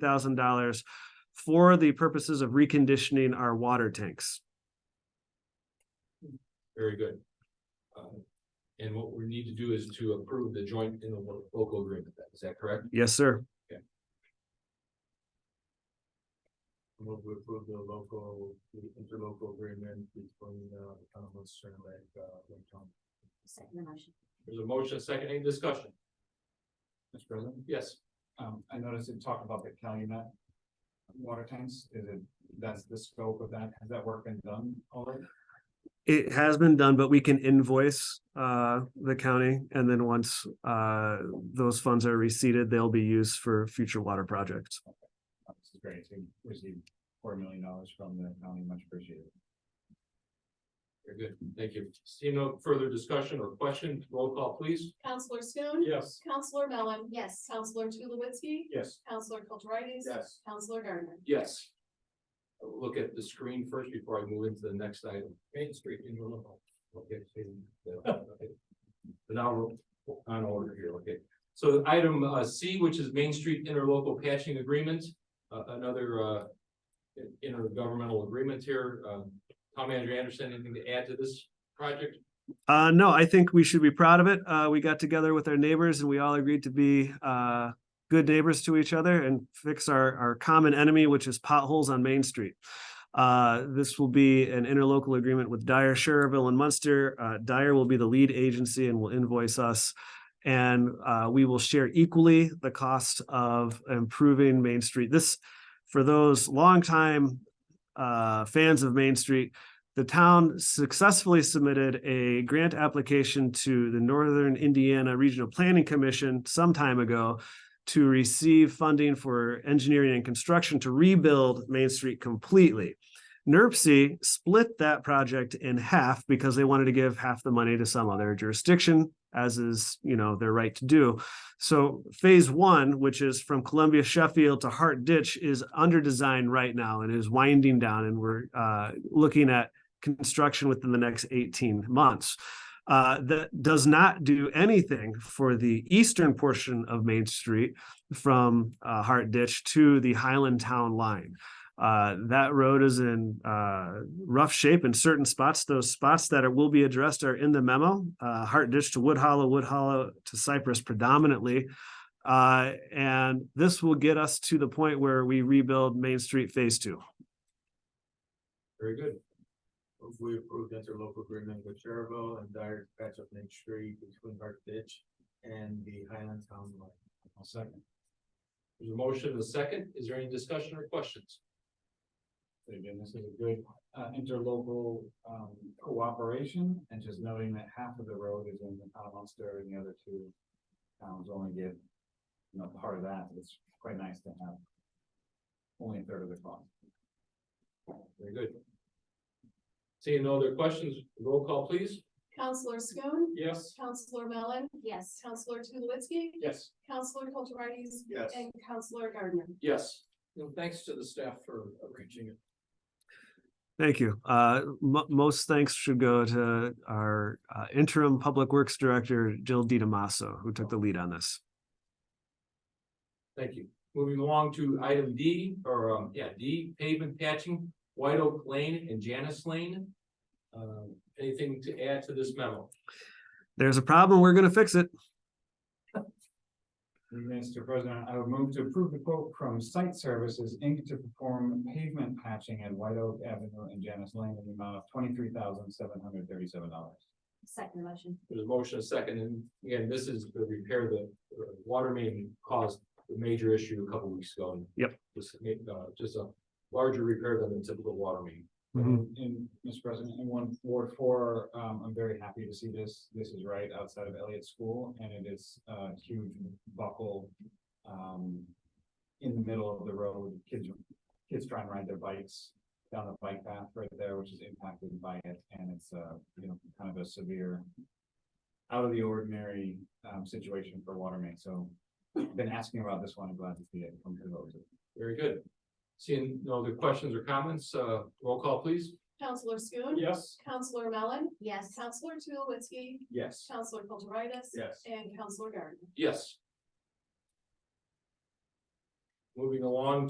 thousand dollars for the purposes of reconditioning our water tanks. Very good. Um, And what we need to do is to approve the joint in the lo- local agreement, is that correct? Yes, sir. Move to approve the local, the interlocal agreement between uh, the town of Munster and Lake, uh, Lake County. Second the motion. There's a motion, a second, any discussion? Mr. President, Yes, um, I noticed it talked about the Calumet water tanks, is it, that's the scope of that, has that work been done already? It has been done, but we can invoice uh the county and then once uh those funds are receipted, they'll be used for future water projects. Uh, This is great, to receive four million dollars from the county, much appreciated. very good, thank you. See no further discussion or question, roll call please. Counselor Schoen. Yes. Counselor Mellon. Yes. Counselor Tulowitzki. Yes. Counselor Kulturitis. Yes. Counselor Gardner. Yes. Look at the screen first before I move into the next item. Main Street interlocal. Okay. so, uh, okay. So Now we're on order here, okay. So item uh C, which is Main Street interlocal patching agreement, uh another uh. in- Intergovernmental agreement here, um, Tom Manager Anderson, anything to add to this project? Uh, no, I think we should be proud of it. Uh, we got together with our neighbors and we all agreed to be uh good neighbors to each other and fix our our common enemy, which is potholes on Main Street. Uh, this will be an interlocal agreement with Dyer, Sherrville and Munster. Uh, Dyer will be the lead agency and will invoice us. And uh, we will share equally the cost of improving Main Street. This, for those longtime uh fans of Main Street, the town successfully submitted a grant application to the Northern Indiana Regional Planning Commission some time ago to receive funding for engineering and construction to rebuild Main Street completely. NERC split that project in half because they wanted to give half the money to some other jurisdiction, as is, you know, their right to do. So phase one, which is from Columbia Sheffield to Hart Ditch, is under design right now and is winding down, and we're uh, looking at construction within the next 18 months. Uh, that does not do anything for the eastern portion of Main Street from uh, Hart Ditch to the Highland Town line. Uh, that road is in uh, rough shape in certain spots. Those spots that are, will be addressed are in the memo. Uh, Hart Ditch to Wood Hollow, Wood Hollow to Cypress predominantly. Uh, and this will get us to the point where we rebuild Main Street Phase Two. Very good, We approved interlocal agreement with Cherville and Dyer patch up Main Street between Hart Ditch and the Highland Town Line. I'll second. there's a motion, and a second, is there any discussion or questions? Again, this is a good uh interlocal um cooperation and just noting that half of the road is in the town of Munster and the other two towns only give, you know, part of that. It's quite nice to have only a third of the cost. Very good. Seeing no other questions, roll call please. Counselor Schoen. Yes. Counselor Mellon. Yes. Counselor Tulowitzki. Yes. Counselor Kulturitis. Yes. And Counselor Gardner. Yes. And thanks to the staff for arranging it. Thank you. Uh, mo- most thanks should go to our uh, interim Public Works Director, Jill DiDamasso, who took the lead on this. Thank you. Moving along to item D, or, um, yeah, D, pavement patching, White Oak Lane and Janice Lane. Um, anything to add to this memo? There's a problem, we're gonna fix it. Mr. President, I would move to approve the quote from Site Services Inc. to perform pavement patching at White Oak Avenue and Janice Lane in the amount of twenty-three thousand seven hundred thirty-seven dollars. Second the motion. There's a motion, a second, and again, this is the repair that uh, water main caused the major issue a couple weeks ago. and Yep. Just, uh, just a larger repair than the typical water main. Mhm. And, and, Mr. President, in one Ward four, um, I'm very happy to see this. This is right outside of Elliott School and it is a huge buckle. Um, in the middle of the road, kids, kids try and ride their bikes down the bike path right there, which is impacted by it. And it's, uh, you know, kind of a severe, out of the ordinary, um, situation for water main. So been asking about this one. I'm glad to see it come to those. Very good. Seeing no other questions or comments, uh, roll call please. Counselor Schoen. Yes. Counselor Mellon. Yes. Counselor Tulowitzki. Yes. Counselor Kulturitis. Yes. And Counselor Gardner. Yes. Moving along